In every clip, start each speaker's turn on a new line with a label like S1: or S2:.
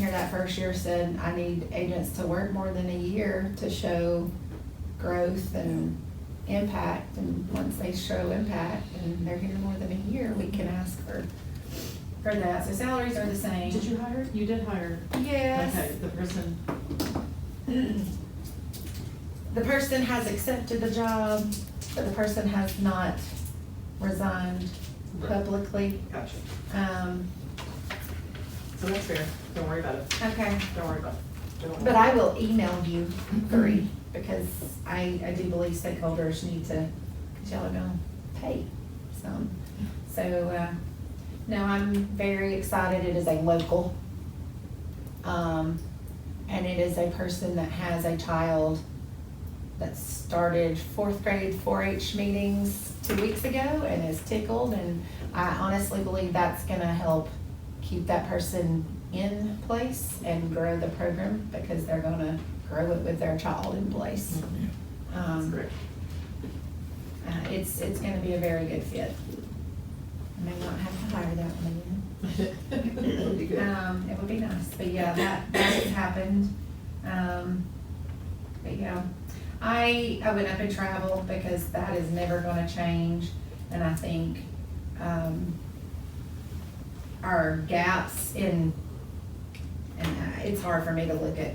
S1: that first year said, I need agents to work more than a year to show growth and impact, and once they show impact and they're here more than a year, we can ask for, for that, so salaries are the same.
S2: Did you hire? You did hire. Okay,
S1: Yes,
S2: the person,
S1: the person has accepted the job, but the person has not resigned
S2: Right.
S1: publicly,
S2: gotcha.
S1: um,
S2: So that's fair. Don't worry about it.
S1: okay.
S2: Don't worry about it. Don't worry.
S1: But I will email you three, because I, I do believe stakeholders need to, because y'all are gonna pay some. So, uh, no, I'm very excited, it is a local. Um, and it is a person that has a child that started fourth grade four H meetings two weeks ago and is tickled, and I honestly believe that's gonna help keep that person in place and grow the program because they're gonna grow it with their child in place.
S2: Mhm. That's
S1: Um,
S2: great.
S1: uh, it's, it's gonna be a very good fit. I may not have to hire that one again.
S2: That'd be good.
S1: Um, it would be nice, but yeah, that, that has happened. Um, but yeah, I, I went up and traveled because that is never gonna change. And I think, um, our gaps in, and uh, it's hard for me to look at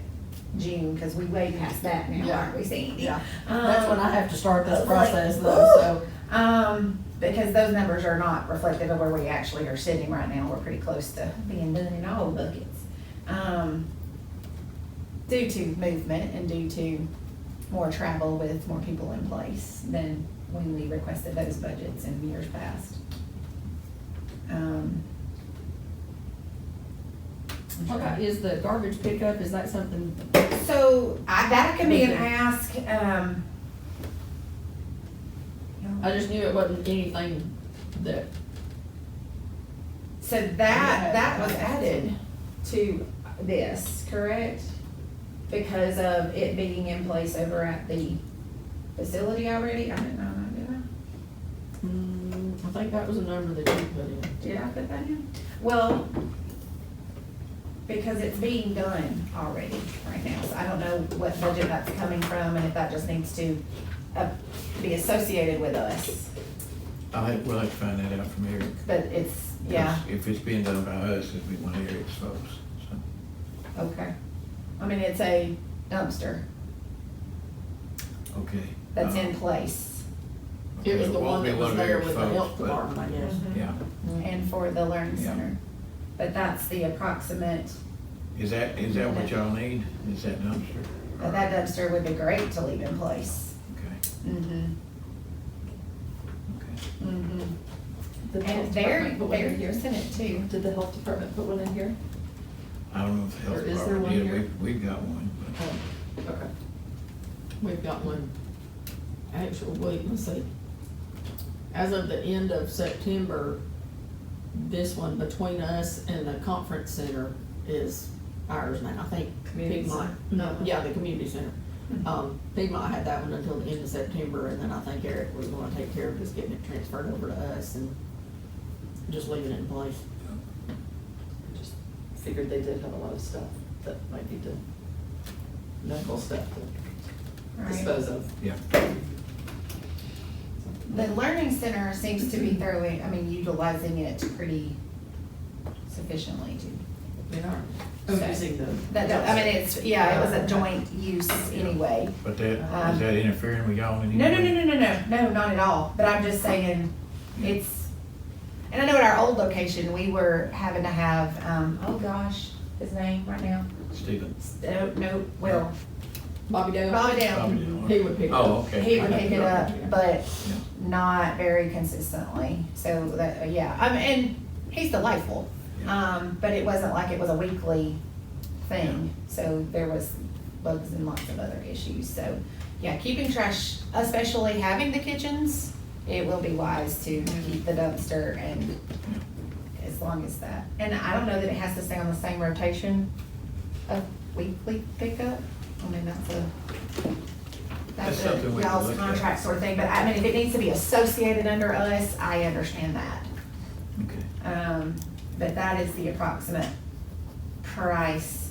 S1: June, cause we way past that now,
S3: Yeah.
S1: aren't we, Sandy?
S3: Yeah, that's when I have to start
S1: I
S3: this
S1: was like,
S3: process
S1: "Woo!"
S3: though, so.
S1: Um, because those numbers are not reflective of where we actually are sitting right now. We're pretty close to being done in all buckets. Um, due to movement and due to more travel with more people in place than when we requested those budgets in years past. Um, I'm
S3: What
S1: trying-
S3: about, is the garbage pickup, is that something,
S1: So I, that can be an ask, um.
S3: I just knew it wasn't anything that,
S1: So that, that was added to this, correct? Because of it being in place over at the facility already, I didn't know that, did I?
S3: Hmm, I think that was a number that you put in.
S1: Did I put that in? Well, because it's being done already right now, so I don't know what budget that's coming from and if that just needs to, uh, be associated with us,
S4: I think we'll have to find that out from Eric.
S1: but it's, yeah.
S4: If it's being done by us, it'd be one of Eric's folks, so.
S1: Okay. I mean, it's a dumpster
S4: Okay.
S1: that's
S4: Uh,
S1: in place
S4: okay,
S3: It was the
S4: won't
S3: one
S4: be
S3: that was
S4: of
S3: there
S4: Eric's
S3: with the
S4: folks,
S3: health
S4: but-
S3: department, I guess.
S4: Yeah,
S1: and for the learning
S4: Yeah.
S1: center. But that's the approximate,
S4: is that, is that what y'all need? Is that dumpster?
S1: but that dumpster would be great to leave in place.
S4: Okay,
S1: Mm-hmm,
S4: okay.
S1: mm-hmm.
S3: Did the
S1: And
S3: health
S1: they're,
S3: department put one
S1: they're
S3: in here?
S1: using it too.
S3: Did the health department put one in here?
S4: I don't know if the
S3: Or
S4: health
S3: is there
S4: department
S3: one
S4: did,
S3: here?
S4: we've, we've got one, but,
S3: Oh, Okay. We've got one actual, wait, let's see. As of the end of September, this one between us and the conference center is ours now, I think.
S2: Community
S3: Piedmont-
S2: center.
S3: No, yeah, the community center.
S2: Mm-hmm.
S3: Um, Piedmont had that one until the end of September, and then I think Eric was gonna take care of just getting it transferred over to us and just leaving it in place.
S2: I Just Figured they did have a lot of stuff that might need to, medical stuff to
S1: Right.
S2: dispose of.
S4: yeah.
S1: The learning center seems to be thoroughly, I mean, utilizing it pretty sufficiently too.
S2: They are. Oh, using the.
S1: That, I mean, it's, yeah, it was a joint use anyway.
S4: But that,
S1: Um,
S4: is that interfering with y'all in any
S1: No,
S4: way?
S1: no, no, no, no, no, no, not at all. But I'm just saying, it's, and I know at our old location, we were having to have, um, oh gosh, his name right now.
S4: Stephen.
S1: No, no, Will,
S3: Bobby Dale?
S1: Bobby
S4: Bobby
S1: Down.
S4: Dillon.
S3: He would pick it up.
S4: Oh, okay.
S1: He would pick it up, but
S4: Yeah.
S1: not very consistently. So that, yeah, um, and he's delightful. Um, but it wasn't like it was a weekly thing. So there was bugs and lots of other issues. So yeah, keeping trash, especially having the kitchens, it will be wise to keep the dumpster and as long as that. And I don't know that it has to stay on the same rotation of weekly pickup. I mean, that's a,
S4: That's
S1: that's
S4: something
S1: a
S4: we can
S1: y'all's
S4: look at.
S1: contract sort of thing. But I mean, if it needs to be associated under us, I understand that.
S4: Okay.
S1: Um, but that is the approximate price